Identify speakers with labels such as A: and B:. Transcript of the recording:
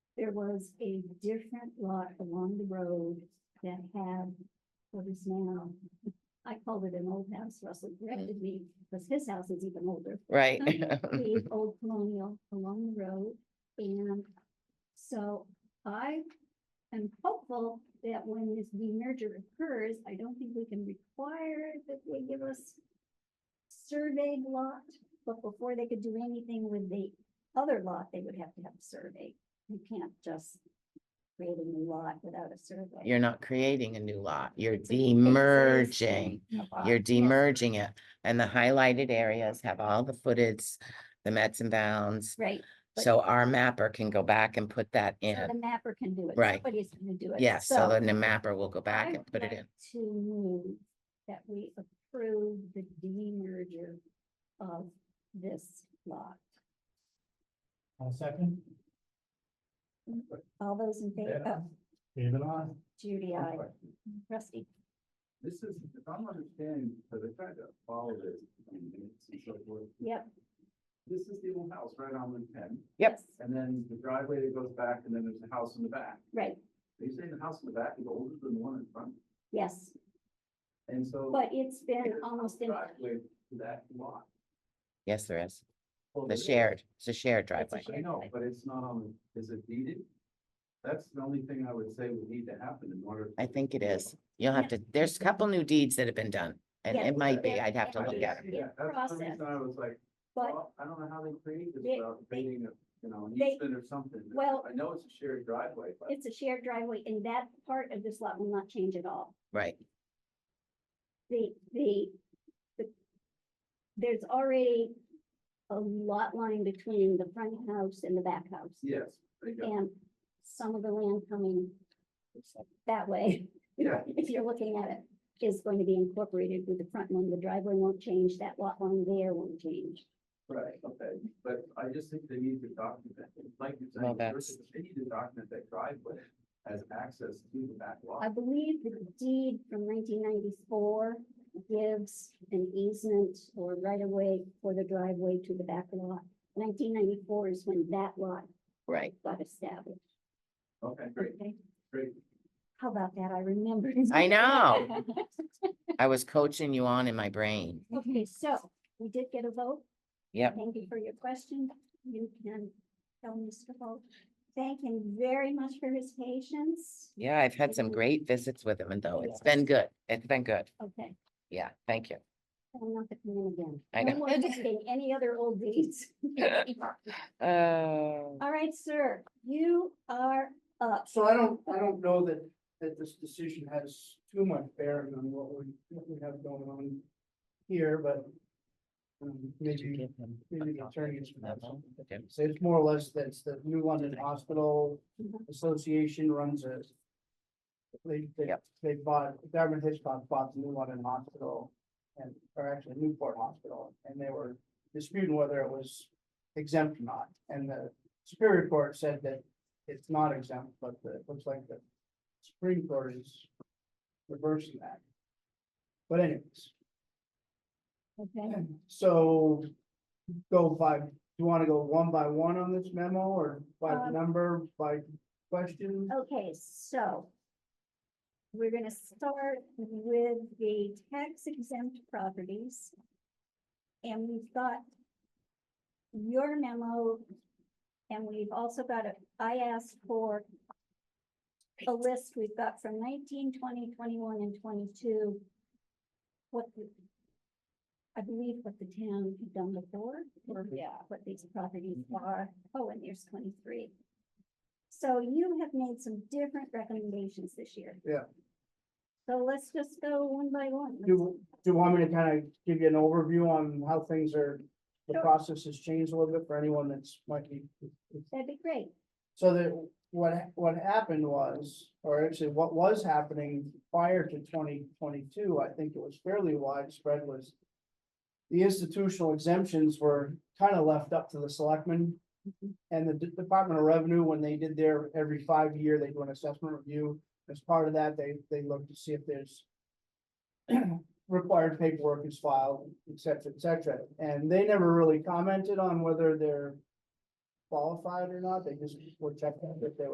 A: there was a different lot along the road that had what is now, I called it an old house, Russell corrected me, because his house is even older.
B: right?
A: The old colonial along the road, and so I am hopeful that when this demerger occurs, I don't think we can require that they give us surveyed lot, but before they could do anything with the other lot, they would have to have a survey. You can't just create a new lot without a survey.
B: You're not creating a new lot, you're
A: So you can say it's
B: demerging.
A: a lot,
B: You're
A: yes.
B: demerging it, and the highlighted areas have all the footage, the mets and bounds.
A: Right, but-
B: So our mapper can go back and put that
A: so
B: in.
A: the mapper can do it.
B: Right.
A: Somebody's gonna do it.
B: Yes, so then the mapper will go
A: I
B: back and
A: would
B: put it
A: like
B: in.
A: To move that we approve the demerger of this lot.
C: I'll second.
A: All those in favor,
C: Yeah.
A: oh,
C: David, I.
A: Judy, I, Rusty,
D: This is, if I'm understanding, because I tried to follow this in minutes and so forth,
A: yep.
D: this is the old house right on Route ten,
B: Yep.
A: yes,
D: and then the driveway that goes back, and then there's a house in the back.
A: Right,
D: Are you saying the house in the back is older than the one in front?
A: yes,
D: And so.
A: but it's been
D: there's no
A: almost in,
D: Driveway to that lot.
B: Yes, there is.
D: Well,
B: The
D: there is.
B: shared, it's a shared driveway.
D: I know, but it's not on, is it deeded? That's the only thing I would say would need to happen in order.
B: I think it is. You'll have to, there's a couple new deeds that have been done, and
A: Yeah,
B: it might be,
A: yeah,
B: I'd have to
D: I
A: yeah.
B: look
D: didn't
B: at it.
D: see that. That's the
A: Process.
D: reason I was like,
A: but
D: Well, I don't know how they create this
A: They-
D: without
A: they-
D: creating a, you know, an
A: they-
D: easement or something.
A: well-
D: I know it's a shared driveway, but
A: it's a shared driveway and that part of this lot will not change at all.
B: Right,
A: the, the, the, there's already a lot line between the front house and the back house.
D: yes, they got,
A: And some of the land coming that way,
D: yeah,
A: if you're looking at it, is going to be incorporated with the front one. The driveway won't change, that lot line there won't change.
D: right, okay. But I just think they need to document, it. like you're
B: Well,
D: saying,
B: that's-
D: first, they need to document that driveway as access to the back
A: I
D: lot.
A: believe the deed from nineteen ninety-four gives an easement or right-of-way for the driveway to the back lot. Nineteen ninety-four is when that lot
B: right.
A: got established.
D: Okay, great,
A: Okay,
D: great.
A: how about that? I remembered.
B: I know. I was coaching you on in my brain.
A: Okay, so we did get a vote.
B: Yep.
A: Thank you for your question. You can tell Mr. Holt, thank him very much for his patience.
B: Yeah, I've had some
A: Mhm.
B: great visits with him, and though it's been good, it's been good.
A: Okay,
B: Yeah, thank you.
A: I'm not gonna come in again.
B: I
A: No
B: know.
A: more visiting Any other old deeds?
B: Uh,
A: All right, sir, you are up.
C: So I don't, I don't know that, that this decision has too much bearing on what we, what we have going on here, but um, maybe, maybe the attorneys would have something to
B: Tim?
C: say. It's more or less that it's the New London Hospital
A: Mhm.
C: Association runs a they, they,
B: Yep.
C: they bought, Dartmouth Hitchcock bought the New London Hospital and, or actually Newport Hospital, and they were disputing whether it was exempt or not. And the Superior Court said that it's not exempt, but the- it looks like the Supreme Court is reversing that. But anyways,
A: Okay,
C: so go by, do you want to go one by one on this memo or by
A: Um,
C: number, by question?
A: okay, so we're gonna start with the tax exempt properties. And we've got your memo, and we've also got a, I asked for a list we've got from 19, 20, 21, and twenty-two. What the, I believe what the town had done before, or
C: Mhm.
A: what these properties are, oh, and there's twenty-three. So you have made some different recommendations this year.
C: Yeah.
A: So let's just go one by one.
C: Do, do you want me to kind of give you an overview on how things are, the
A: Sure.
C: process has changed a little bit for anyone that's might be?
A: That'd be great.
C: So that what, what happened was, or actually what was happening prior to twenty twenty-two, I think it was fairly widespread was. The institutional exemptions were kind of left up to the selectmen. And the D- Department of Revenue, when they did their, every five year, they do an assessment review. As part of that, they, they look to see if there's. Required paperwork is filed, et cetera, et cetera. And they never really commented on whether they're qualified or not, they just were checking if they were